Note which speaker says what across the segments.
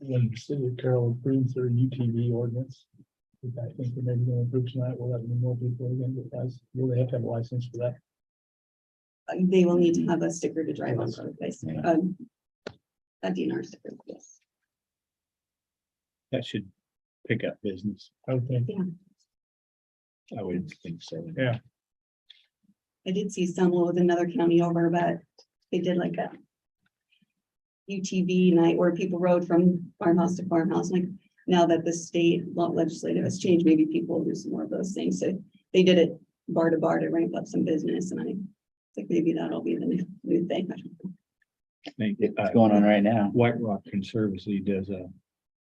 Speaker 1: And then the city of Carroll approves their UTV ordinance. which I think we're maybe gonna approve tonight. We'll have more people again, but guys, will they have to have a license for that?
Speaker 2: Uh, They will need to have a sticker to drive on the place,
Speaker 1: Yeah.
Speaker 2: um. A DNR sticker, yes.
Speaker 3: That should pick up business.
Speaker 1: I would think.
Speaker 3: I would think so.
Speaker 1: Yeah.
Speaker 2: I did see some with another county over, but they did like a. UTV night where people rode from farmhouse to farmhouse, like now that the state law legislative has changed, maybe people will do some more of those things, so. They did it bar to bar to ramp up some business and I think maybe that'll be the new- new thing.
Speaker 3: Think, uh,
Speaker 4: It's going on right now.
Speaker 3: White Rock Conservancy does a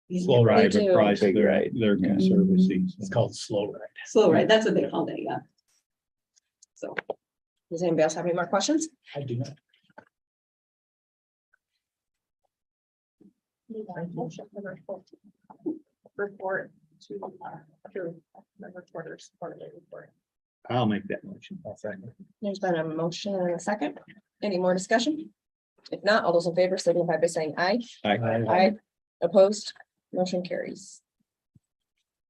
Speaker 2: Yeah.
Speaker 3: slow
Speaker 5: They
Speaker 3: ride
Speaker 5: do.
Speaker 3: price
Speaker 4: Big
Speaker 3: their,
Speaker 4: ride.
Speaker 1: Mm-hmm.
Speaker 3: their
Speaker 4: Yeah.
Speaker 3: conservancy.
Speaker 1: It's called slow ride.
Speaker 2: Slow ride, that's what they called it, yeah. So.
Speaker 5: Does anybody else have any more questions?
Speaker 1: I do not.
Speaker 5: Report to member quarters quarterly report.
Speaker 3: I'll make that motion.
Speaker 5: There's been a motion and a second. Any more discussion? If not, all those in favor signify by saying aye.
Speaker 1: I-
Speaker 5: Aye. Opposed, motion carries.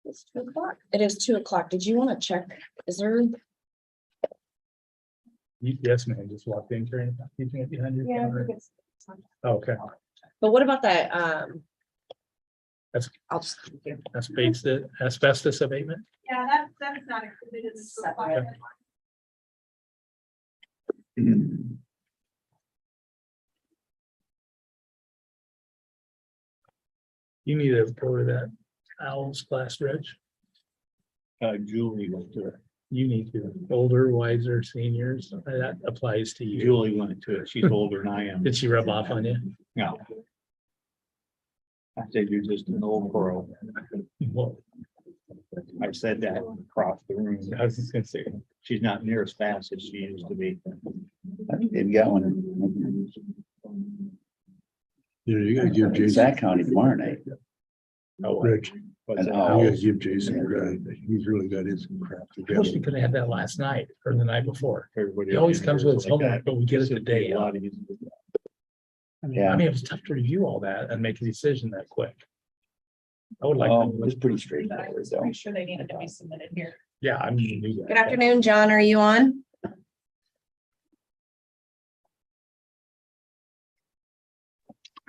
Speaker 5: It's two o'clock. It is two o'clock. Did you want to check? Is there?
Speaker 1: UPS man just walked in carrying, keeping it behind your counter. Okay,
Speaker 5: But what about that, um?
Speaker 1: That's-
Speaker 5: I'll just.
Speaker 1: asbestos, asbestos abatement.
Speaker 6: Yeah, that, that is not included in the requirement.
Speaker 1: You need to go to that owl's class, Reg.
Speaker 3: Uh, Julie went to it.
Speaker 1: You need to, older, wiser, seniors, that applies to you.
Speaker 3: Julie went to it. She's older than I am.
Speaker 1: Did she rub off on you?
Speaker 3: No. I said, you're just an old girl. Oh,
Speaker 1: Well,
Speaker 3: I said that across the room.
Speaker 1: I was just gonna say,
Speaker 3: She's not near as fast as she used to be.
Speaker 4: I think they've got one.
Speaker 7: Yeah, you gotta give
Speaker 4: It's
Speaker 7: Jason,
Speaker 4: that county tomorrow night.
Speaker 3: Oh, what-
Speaker 7: Rich, you
Speaker 3: what's
Speaker 4: An
Speaker 3: that?
Speaker 4: hour.
Speaker 7: gotta give Jason, credit. he's really got his crap
Speaker 1: I wish we
Speaker 7: together.
Speaker 1: could have had that last night or the night before.
Speaker 3: Everybody
Speaker 1: He always
Speaker 3: up
Speaker 1: comes
Speaker 3: here
Speaker 1: with his
Speaker 3: is like
Speaker 1: homework,
Speaker 3: that.
Speaker 1: but we get it the
Speaker 3: Should be
Speaker 1: day
Speaker 3: a
Speaker 1: of.
Speaker 3: lot easier.
Speaker 1: I mean,
Speaker 4: Yeah.
Speaker 1: I mean, it was tough to review all that and make a decision that quick. I would like,
Speaker 4: Oh,
Speaker 1: to-
Speaker 4: it's pretty straightforward though.
Speaker 6: sure they needed to be submitted here.
Speaker 1: yeah, I'm gonna do that.
Speaker 5: Good afternoon, John. Are you on?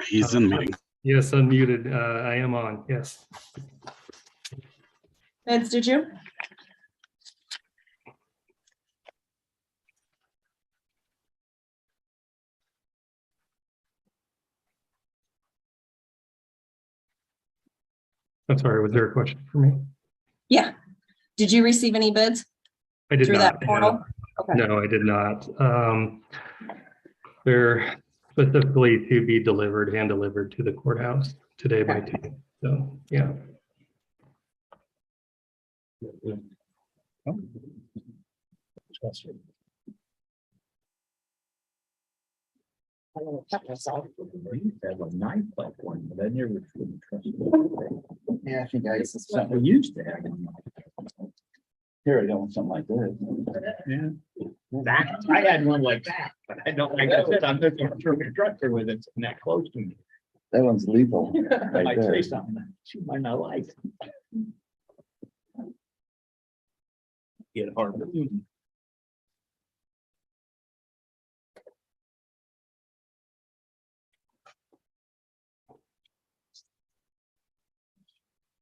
Speaker 7: He's in meeting.
Speaker 8: Yes, unmuted. Uh, I am on, yes.
Speaker 5: Vince, did you?
Speaker 8: I'm sorry, was there a question for me?
Speaker 5: Yeah. Did you receive any bids?
Speaker 8: I did
Speaker 5: Through
Speaker 8: not.
Speaker 5: that portal? Okay.
Speaker 8: No, I did not. Um, they're specifically to be delivered, hand delivered to the courthouse today by two. So, yeah.
Speaker 1: Trust me.
Speaker 5: I'm gonna cut myself.
Speaker 3: Have a knife like one, but I never. really trusted
Speaker 4: Yeah, I think I,
Speaker 5: This is
Speaker 4: something
Speaker 3: it. We used to have. one.
Speaker 4: here, I don't want something like this.
Speaker 3: That, I had one like that, but I don't, like I said, I'm just gonna throw a tractor with it, and that close to me.
Speaker 4: That one's lethal.
Speaker 3: I might
Speaker 4: there.
Speaker 3: say something, that she might not like. Get hard.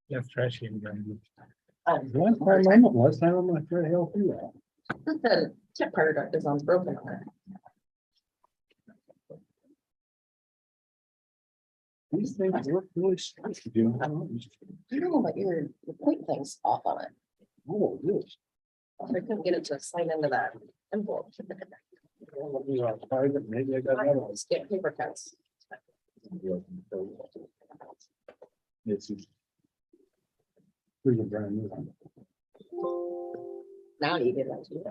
Speaker 1: Yeah, it's trashy. and grimy.
Speaker 4: Last time I went, last time I'm like, where the hell through that?
Speaker 5: The tip part of it is on broken on it.
Speaker 4: These things look really strange to do. I don't
Speaker 5: I don't know, but your, your point thing's off on it.
Speaker 4: know what oh, it is.
Speaker 5: I couldn't get it to sign into that envelope.
Speaker 4: These are private, Maybe I got another one.
Speaker 5: Let's Get paper cuts.
Speaker 3: This is,
Speaker 4: Here's a brand new one.
Speaker 5: Now you get that. too.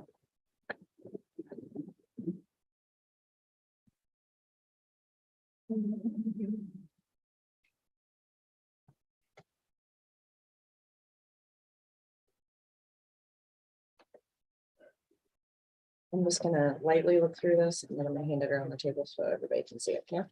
Speaker 5: I'm just gonna lightly look through this and then I'm gonna hand it around the table so everybody can see it. Yeah.